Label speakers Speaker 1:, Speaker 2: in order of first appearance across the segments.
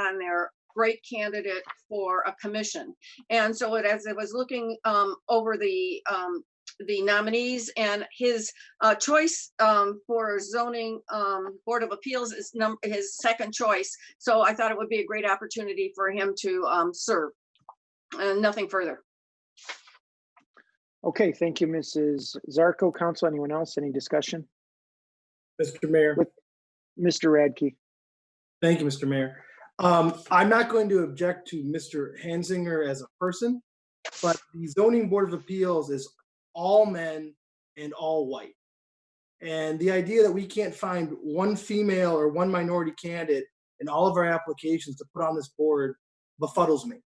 Speaker 1: on there, great candidate for a commission. And so it- as I was looking um, over the, um, the nominees and his uh, choice um, for zoning um, board of appeals is num, his second choice. So I thought it would be a great opportunity for him to um, serve. And nothing further.
Speaker 2: Okay, thank you, Mrs. Zarco. Council, anyone else? Any discussion?
Speaker 3: Mr. Mayor,
Speaker 2: With- Mr. Radke,
Speaker 3: thank you, Mr. Mayor. Um, I'm not going to object to Mr. Hansinger as a person, but the zoning board of appeals is all men and all white. And the idea that we can't find one female or one minority candidate in all of our applications to put on this board befuddles me.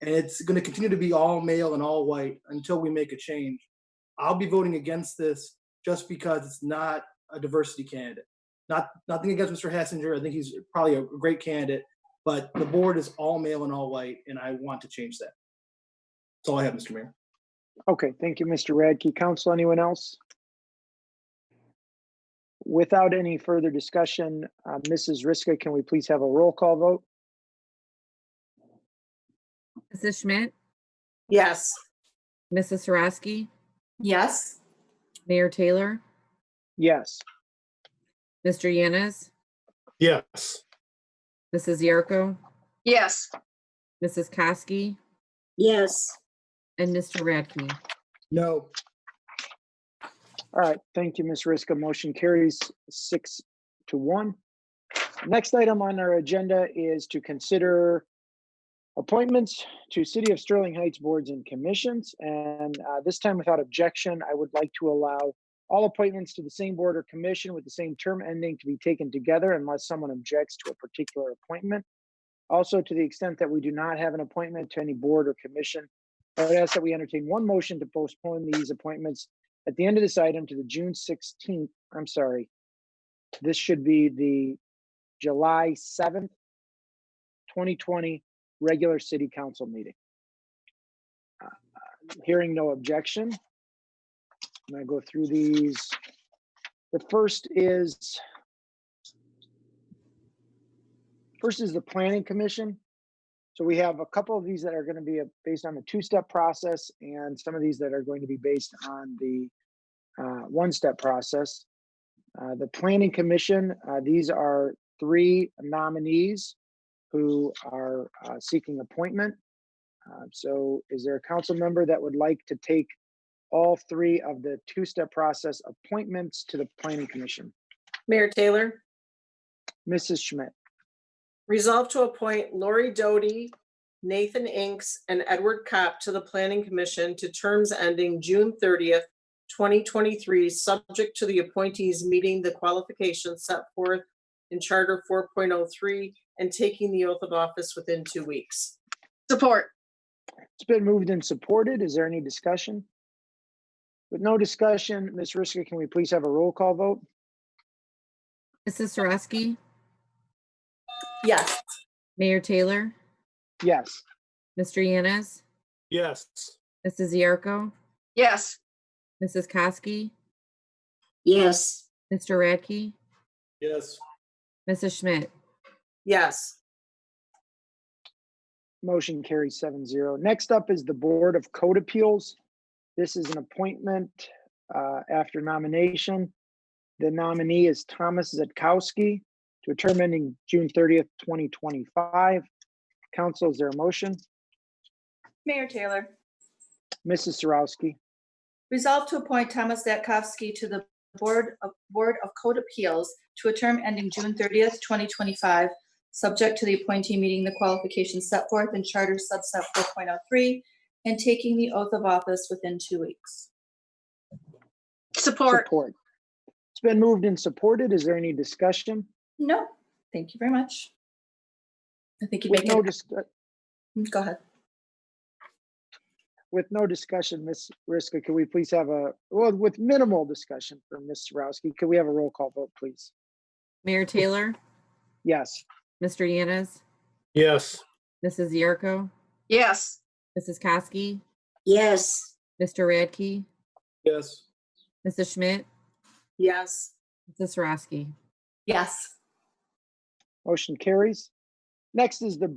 Speaker 3: And it's going to continue to be all male and all white until we make a change. I'll be voting against this just because it's not a diversity candidate. not nothing against Mr. Hassinger. I think he's probably a great candidate, but the board is all male and all white, and I want to change that. That's all I have, Mr. Mayor.
Speaker 2: okay, thank you, Mr. Radke. Council, anyone else? Without any further discussion, uh, Mrs. Riska, can we please have a roll call vote?
Speaker 4: Mrs. Schmidt,
Speaker 5: Yes.
Speaker 4: Mrs. Sarowski,
Speaker 5: Yes.
Speaker 4: Mayor Taylor,
Speaker 2: Yes,
Speaker 4: Mr. Yanes,
Speaker 3: Yes.
Speaker 4: Mrs. Yarko,
Speaker 1: Yes,
Speaker 4: Mrs. Kosky,
Speaker 5: Yes.
Speaker 4: and Mr. Radke.
Speaker 3: No.
Speaker 2: all right, thank you, Ms. Riska. Motion carries six to one. Next item on our agenda is to consider appointments to City of Sterling Heights boards and commissions. And uh, this time, without objection, I would like to allow all appointments to the same board or commission with the same term ending to be taken together unless someone objects to a particular appointment. Also, to the extent that we do not have an appointment to any board or commission, I would ask that we entertain one motion to postpone these appointments at the end of this item to the June 16th, I'm sorry. This should be the July 7th, 2020 regular city council meeting. Uh, Hearing no objection. I'm gonna go through these. The first is first is the planning commission. So we have a couple of these that are gonna be a- based on the two-step process and some of these that are going to be based on the uh, one-step process. Uh, The planning commission, uh, these are three nominees who are uh, seeking appointment. Uh, So is there a council member that would like to take all three of the two-step process appointments to the planning commission?
Speaker 5: Mayor Taylor,
Speaker 2: Mrs. Schmidt,
Speaker 5: resolve to appoint Lori Doty, Nathan Inks, and Edward Kopp to the Planning Commission to terms ending June thirtieth, twenty twenty-three, subject to the appointees meeting the qualifications set forth in Charter four point oh three and taking the oath of office within two weeks.
Speaker 1: support.
Speaker 2: it's been moved and supported. Is there any discussion? With no discussion, Ms. Riska, can we please have a roll call vote?
Speaker 4: Mrs. Sarowski,
Speaker 5: Yes.
Speaker 4: Mayor Taylor,
Speaker 2: Yes.
Speaker 4: Mr. Yanes,
Speaker 3: Yes.
Speaker 4: Mrs. Yarko,
Speaker 1: Yes,
Speaker 4: Mrs. Kosky,
Speaker 5: Yes.
Speaker 4: Mr. Radke,
Speaker 3: Yes.
Speaker 4: Mrs. Schmidt,
Speaker 5: Yes.
Speaker 2: Motion carries seven zero. Next up is the Board of Code Appeals. This is an appointment uh, after nomination. The nominee is Thomas Zetkowski to a term ending June thirtieth, twenty twenty-five. Council, is there a motion?
Speaker 6: Mayor Taylor,
Speaker 2: Mrs. Sarowski,
Speaker 6: resolve to appoint Thomas Zatkovsky to the Board of, Board of Code Appeals to a term ending June thirtieth, twenty twenty-five, subject to the appointee meeting the qualifications set forth in Charter subset four point oh three and taking the oath of office within two weeks.
Speaker 1: support.
Speaker 2: support. It's been moved and supported. Is there any discussion?
Speaker 6: No, thank you very much. I think you
Speaker 2: With
Speaker 6: make
Speaker 2: no
Speaker 6: it,
Speaker 2: dis-
Speaker 6: go ahead.
Speaker 2: with no discussion, Ms. Riska, can we please have a, well, with minimal discussion from Ms. Sarowski, could we have a roll call vote, please?
Speaker 4: Mayor Taylor,
Speaker 2: Yes.
Speaker 4: Mr. Yanes,
Speaker 3: Yes.
Speaker 4: Mrs. Yarko,
Speaker 1: Yes,
Speaker 4: Mrs. Kosky,
Speaker 5: Yes.
Speaker 4: Mr. Radke,
Speaker 3: Yes.
Speaker 4: Mrs. Schmidt,
Speaker 5: Yes.
Speaker 4: Mrs. Sarowski.
Speaker 6: Yes.
Speaker 2: Motion carries. Next is the